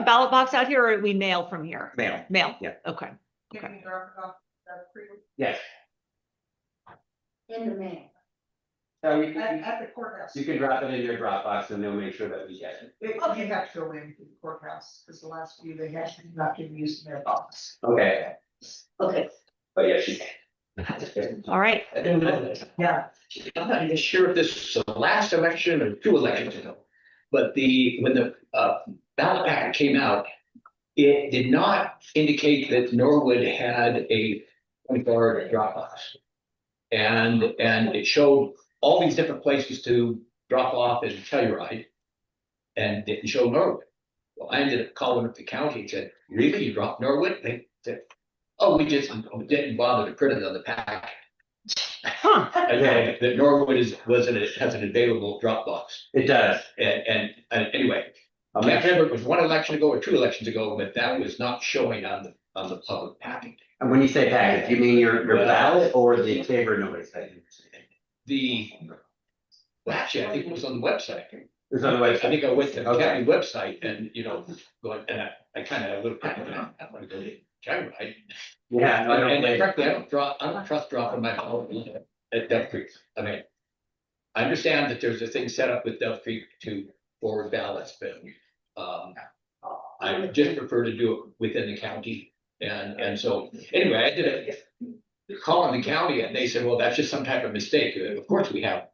ballot box out here or we mail from here? Mail. Mail? Yeah. Okay. Okay. Can you drop it off at the pre- Yes, in the mail. so you At, can, at the courthouse. you can drop it in your Dropbox and they'll make sure that we get it. It- You have to go in to the courthouse, because the last few they had not been used in their box. Okay, Okay, but yes, you All right. And Yeah. I'm not even sure if this was the last election or two elections ago, but the, when the uh, ballot packet came out, it did not indicate that Norwood had a twenty-four drop box. And, and it showed all these different places to drop off and Telluride. And didn't show Norwood. Well, I ended up calling up the county and said, really, you dropped Norwood? They said, oh, we just didn't bother to print it on the packet. Huh. And that- that Norwood is, was an, has an available Dropbox. It does. And, and, and anyway, I I'll can't make sure- remember, if it was one election ago or two elections ago, but that was not showing on the, on the public packet. And when you say packet, you mean your, your ballot or the paper notice that you? The, well, actually, I think it was on the website. Is on the I website. think I went to the Okay. county website and, you know, going, and I, I kind of had a little, panic, and I I want to go to Telluride. Yeah, no, I don't And blame you. frankly, I don't draw, I don't trust dropping my phone at Dove Creek. I mean, I understand that there's a thing set up with Dove Creek to forward ballots, but um, I just prefer to do it within the county. And, and so, anyway, I did a call on the county and they said, well, that's just some type of mistake. Of course, we have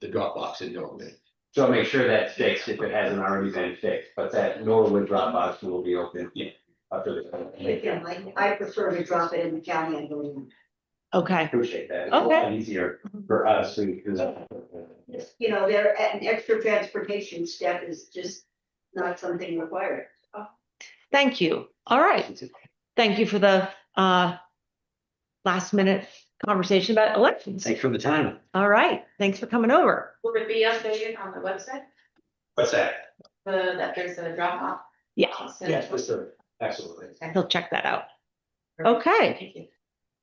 the drop box in Norwood. So I'll make sure that's fixed if it hasn't already been fixed, but that Norwood Dropbox will be open. Yeah. After the. yeah, I, I prefer to drop it in the county and go in. Okay. Appreciate that. It's a Okay. lot Easier for us who. who- You know, there, an extra transportation step is just not something required. Thank you. All right. Thank you for the uh last minute conversation about elections. Thanks for the time. All right. Thanks for coming over. Will it be updated on the website, What's that? the, that there's a drop off? Yeah, Yes, for sure. Absolutely. he'll check that out. Okay. Thank you.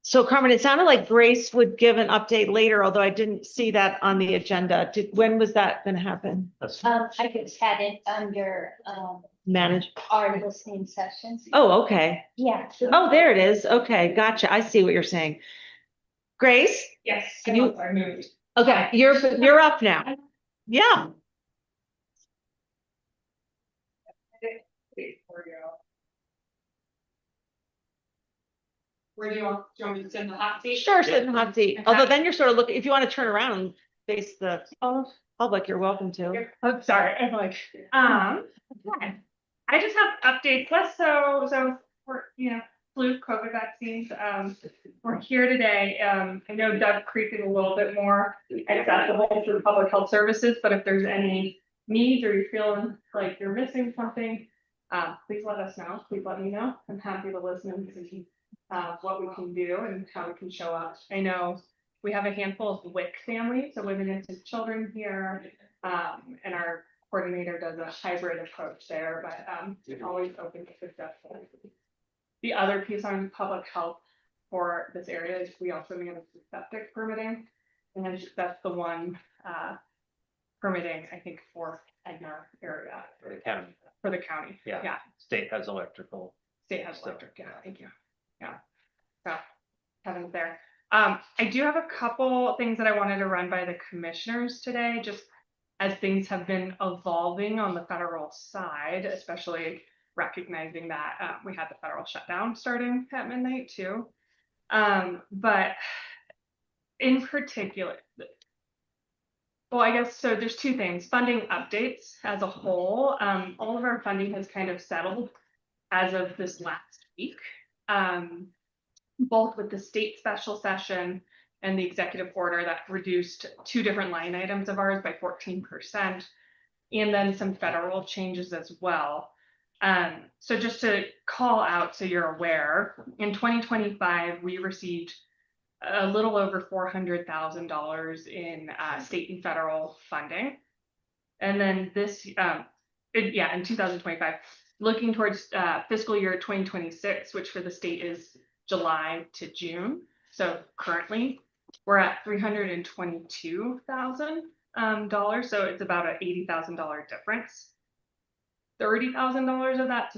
So Carmen, it sounded like Grace would give an update later, although I didn't see that on the agenda. Did, when was that gonna happen? Um, I just had it under, um, Manage? our listening sessions. Oh, okay. Yeah. Oh, there it is. Okay, gotcha. I see what you're saying. Grace? Yes. Can you- I moved. Okay, you're, you're up now. Yeah. Where do you want, do you want me to send the hot seat? Sure, sit in the hot seat. Okay. Although then you're sort of looking, if you want to turn around and face the public, you're welcome to. I'm sorry, I'm like, um, okay. I just have updates, less so, so, we're, you know, flu, COVID vaccines, um, we're here today, um, I know Doug Creek is a little bit more accessible through public health services, but if there's any needs or you're feeling like you're missing something, uh, please let us know, please let me know, I'm happy to listen and see, uh, what we can do and how we can show up. I know we have a handful of WIC families, so women and children here, um, and our coordinator does a hybrid approach there, but, um, always open to suggestions. The other piece on public health for this area is we also manage the septic permitting. And that's the one, uh, permitting, I think, for Edna area, for the county. for the county. Yeah. Yeah, State has electrical. state has So, electric, yeah, thank you, yeah. So, Kevin's there. Um, I do have a couple things that I wanted to run by the commissioners today, just as things have been evolving on the federal side, especially recognizing that uh, we had the federal shutdown starting at midnight too. Um, but in particular, well, I guess, so there's two things, funding updates as a whole, um, all of our funding has kind of settled as of this last week. Um, both with the state special session and the executive order that reduced two different line items of ours by fourteen percent. And then some federal changes as well. Um, so just to call out, so you're aware, in twenty twenty-five, we received a little over four hundred thousand dollars in uh, state and federal funding. And then this, um, in- yeah, in two thousand twenty-five, looking towards uh, fiscal year twenty twenty-six, which for the state is July to June. So currently, we're at three hundred and twenty-two thousand um, dollars, so it's about an eighty thousand dollar difference. Thirty thousand dollars of that to